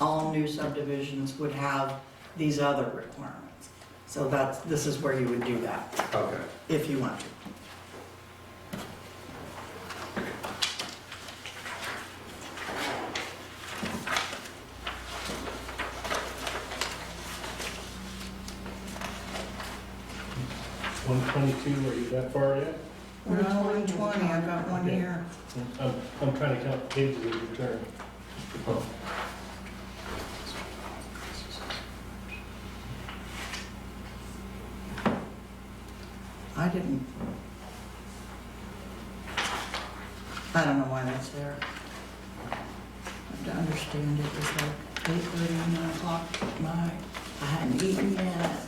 all new subdivisions would have these other requirements. So that's, this is where you would do that, Okay. if you want to. One twenty-two, are you that far yet? We're at 120, I've got one here. I'm, I'm trying to count pages of your turn. Oh, I didn't. I don't know why that's there. I have to understand it was like eight thirty, nine o'clock at night. I hadn't eaten yet.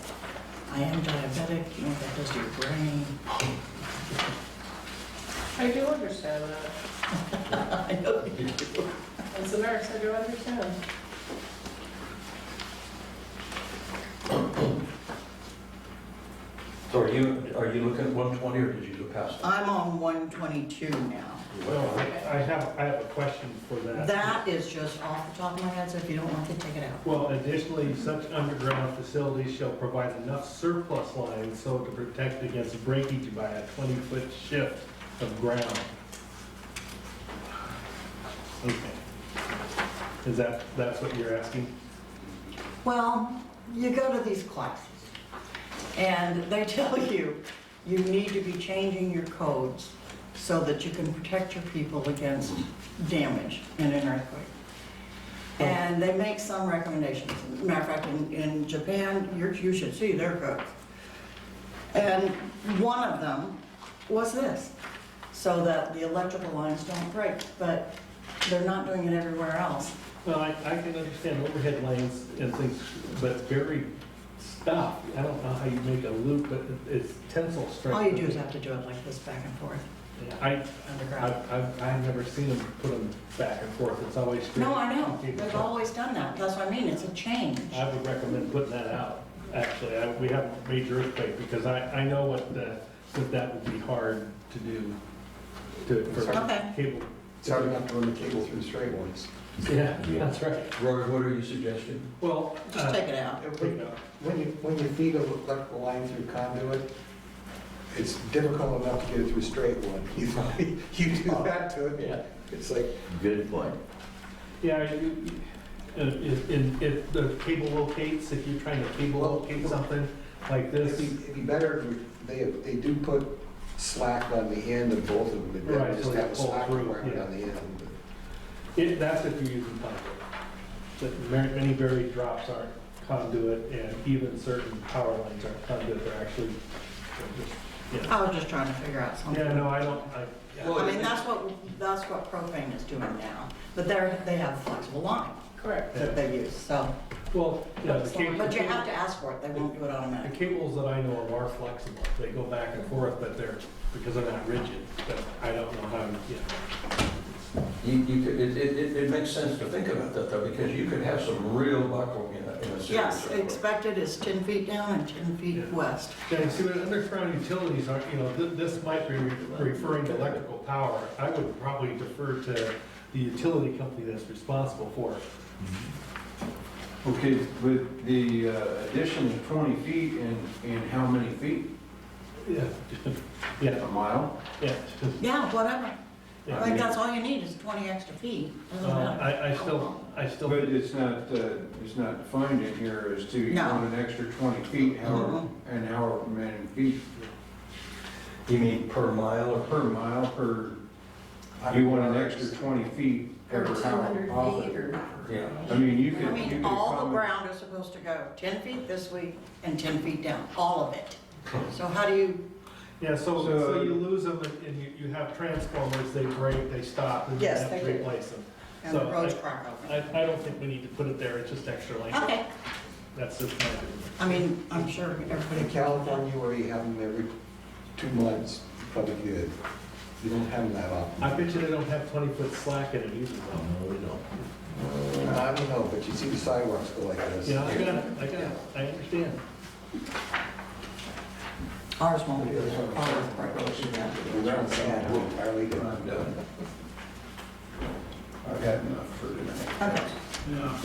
I am diabetic, you know, what that does to your brain. I do understand that. I know. As a nurse, I do understand. So are you, are you looking at 120 or did you go past? it? I'm on one twenty-two now. You Well, went I on. I have, I have a question for that. That is just off the top of my head, so if you don't want to take it out. Well, additionally, such underground facilities shall provide enough surplus lines so to protect against breakage by a twenty-foot shift of ground. Okay. Is that, that's what you're asking? Well, you go to these classes, and they tell you, you need to be changing your codes so that you can protect your people against damage in an earthquake. And they make some recommendations. Matter of fact, in, in Japan, you're, you should see their codes. And one of them was this, so that the electrical lines don't break, but they're not doing it everywhere else. Well, I, I can understand overhead lanes and things, but very stop. I don't know how you make a loop, but it's tensile strength. All you do is have to do it like this, back and forth, Yeah, I, underground. I've, I've, I've never seen them put them back and forth, it's always straight. No, I know, they've always done that, that's what I mean, it's a change. I would recommend putting that out, actually, I, we have a major earthquake, because I, I know what the, that that would be hard to do, to, Okay. for cable. It's hard enough to run the cable through straight ones. Yeah, that's right. Roger, what are you suggesting? Well, Just uh, take it out. take it out. When you, when you feed an electrical line through conduit, it's difficult enough to get it through straight one. You- You do that to it, yeah. it's like, Good point. Yeah, you, uh, if, in- if the cable locates, if you're trying to cable locate something like it'd this, be, it'd be better, if you- they, they do put slack on the end of both of them. They Right, don't so just they have a pull slack through, requirement yeah. on the end. but- it, that's if you're using conduit. But mar- many buried drops aren't conduit, and even certain power lines aren't conduit, they're actually, they're just- yeah. I was just trying to figure out something. Yeah, no, I don't, I, yeah. I mean, that's what, that's what propane is doing now, but they're, they have flexible line Correct. that they use, so. well, yeah, the cable. But you have to ask for it, they won't do it The automatically. cables that I know of are flexible, they go back and forth, but they're, because they're not rigid, but I don't know how, yeah. You, you could, it, it, it- it makes sense to think about that though, because you could have some real buckle in a, in a serious. Yes, earthquake. expected is ten feet down and ten feet Yeah. west. Yeah, you see, when underground utilities are, you know, th- this might be referring to electrical power. I would probably defer to the utility company that's responsible for it. Okay, with the uh, addition of 20 feet and, and how many feet? Yeah. A Yeah, mile? yeah. Yeah, whatever, yeah. I think that's all you need is twenty extra feet, doesn't Uh, matter. I, I still, I But still, it's not, uh, it's not defined in here as to you No. want an extra 20 feet, however, Mhm. and however many feet You mean per mile or per mile per, you want an extra 20 feet Or every 200 hour off feet it. or- Yeah. I mean, you I could, you mean, could all the accommodate. ground is supposed to go ten feet this way and ten feet down, all of it. So how do you yeah, so, So- so you lose them and- and you, you have transformers, they break, they stop, and you Yes, have to they do. replace them. And the So, roads I- crack open. I, I don't think we need to put it there, it's just extra language. Okay, That's just my opinion. I mean, I'm sure everybody. In California, where you have them every two months, probably good. You don't have them that often. I bet you they don't have twenty-foot slack in it either, though. No, we don't. I don't know, but you see the sidewalks go like this. Yeah, I got, it, I got, it, I understand. Ours won't be, ours probably won't be that. It's sad, entirely different. I'm done. I've had enough for tonight. Okay.